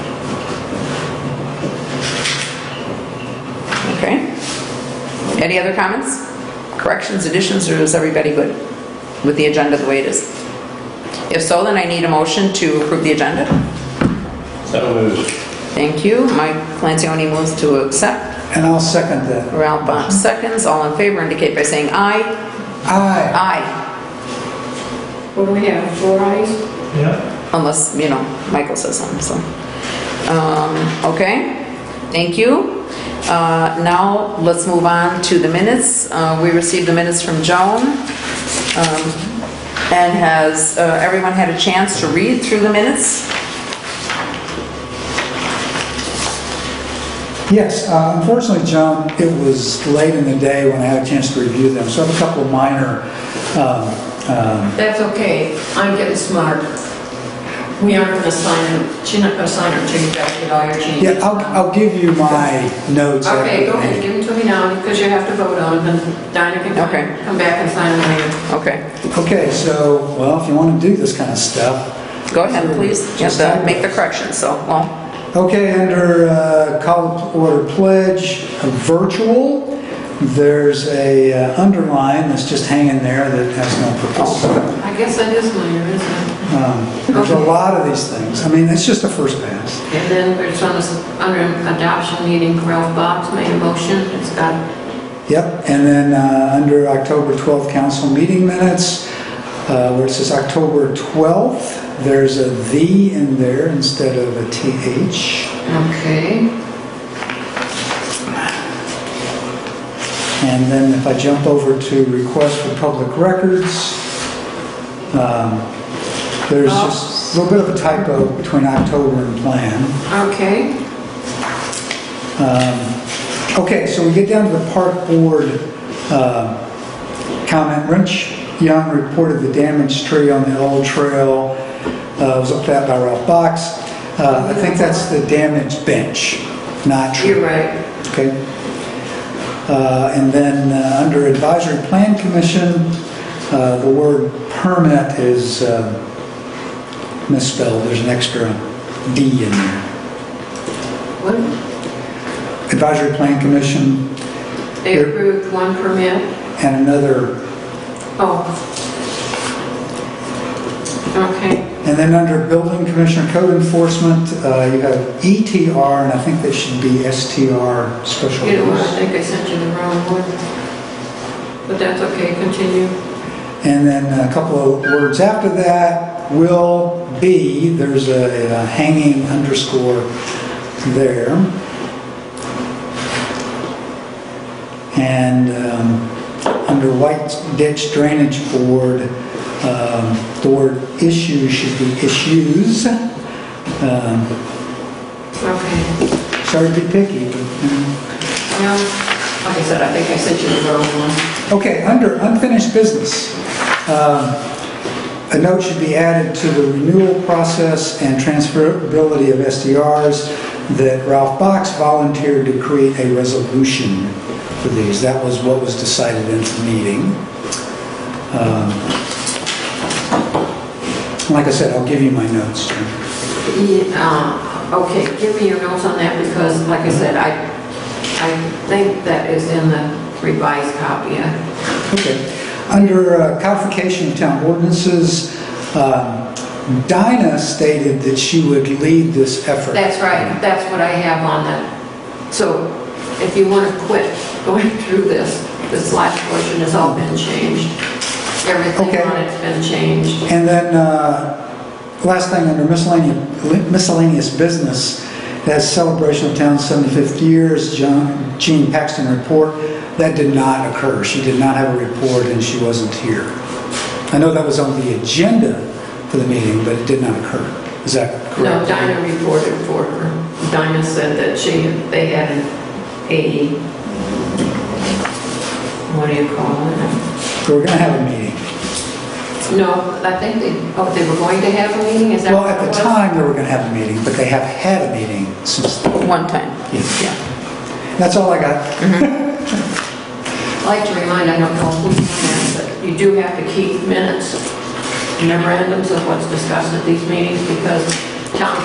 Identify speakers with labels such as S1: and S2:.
S1: Any other comments? Corrections, additions, or is everybody good with the agenda the way it is? If so, then I need a motion to approve the agenda.
S2: So moved.
S1: Thank you. Mike Lancioni moves to accept.
S3: And I'll second that.
S1: Ralph Bosch seconds. All in favor indicate by saying aye.
S3: Aye.
S1: Aye,
S4: What do we have, four eyes?
S2: Yeah.
S1: unless, you know, Michael says something, so. Um, Okay, thank you. Uh, Now, let's move on to the minutes. Uh, We received the minutes from Joan. um, And has uh, everyone had a chance to read through the minutes?
S3: Yes, uh, unfortunately, Joan, it was late in the day when I had a chance to review them, so I have a couple of minor, um, um,
S4: That's okay, I'm getting smart. We aren't gonna sign them, she's not gonna sign them till you guys get all your changes.
S3: yeah, I'll, I'll give you my notes. after
S4: Okay,
S3: the
S4: go ahead,
S3: meeting.
S4: give them to me now, because you have to vote on them, and Dinah can
S1: Okay.
S4: come- come back and sign them later.
S1: Okay,
S3: Okay, so, well, if you want to do this kind of stuff.
S1: go ahead, please. You have to make the corrections, so, well,
S3: Okay, under uh, call to order pledge, uh, virtual, there's a uh, underline that's just hanging there that has no purpose.
S4: I guess that is minor, isn't it?
S3: Um, There's a lot of these things. I mean, it's just a first pass.
S4: And then there's on this, under adoption meeting, Ralph Box made a motion, it's got,
S3: Yep, and then uh, under October 12th council meeting minutes, uh, where it says October 12th, there's a "the" in there instead of a "th."
S4: okay,
S3: And then if I jump over to request for public records, um, there's
S4: Oh.
S3: just a little bit of a typo between October and plan.
S4: okay.
S3: Okay, so we get down to the park board uh, comment. Rich Young reported the damaged tree on the old trail. Uh, It was looked at by Ralph Box. Uh, I think that's the damaged bench, not tree.
S4: You're right.
S3: Okay. Uh, And then, uh, under Advisory Plan Commission, uh, the word permit is uh, misspelled. There's an extra D in there.
S4: What?
S3: Advisory Plan Commission
S4: They
S3: Here.
S4: approved one permit?
S3: and another
S4: Oh. Okay.
S3: And then under Building Commissioner Code Enforcement, uh, you have ETR, and I think that should be STR, special
S4: You know what, I
S3: use.
S4: think I sent you the wrong one. But that's okay, continue.
S3: And then a couple of words after that, will be, there's a a hanging underscore there. And um, under White Ditch Drainage Board, um, the word issue should be issues. Um,
S4: Okay.
S3: Sorry to be picky, but, you know.
S4: Well, like I said, I think I sent you the wrong one.
S3: Okay, under unfinished business, um, a note should be added to the renewal process and transferability of SDRs that Ralph Box volunteered to create a resolution for these. That was what was decided in the meeting. Um, Like I said, I'll give you my notes. Jim.
S4: Yeah, uh, Okay, give me your notes on that because, like I said, I, I think that is in the revised copy. I-
S3: Okay. Under uh, codification of town ordinances, um, Dinah stated that she would lead this effort.
S4: That's right, that's what I have on that. So if you want to quit going through this, this last portion has all been changed. Everything
S3: Okay.
S4: on it's been changed.
S3: And then, uh, last thing, under miscellaneous miscellaneous business, that's celebration of town's 75th years, John- Jean Paxton report. That did not occur. She did not have a report, and she wasn't here. I know that was on the agenda for the meeting, but it did not occur. Is that
S4: No,
S3: correct?
S4: Dinah reported for her. Dinah said that she, they had an a, what do you call it?
S3: We're going to have a meeting.
S4: No, I think they, oh, they were going to have a meeting, is that
S3: Well,
S4: what it
S3: at the
S4: was?
S3: time, they were going to have a meeting, but they have had a meeting since then.
S1: one time, yeah.
S3: That's all I got.
S4: I'd like to remind, I don't know who's on that, but you do have to keep minutes, memorandums of what's discussed at these meetings because town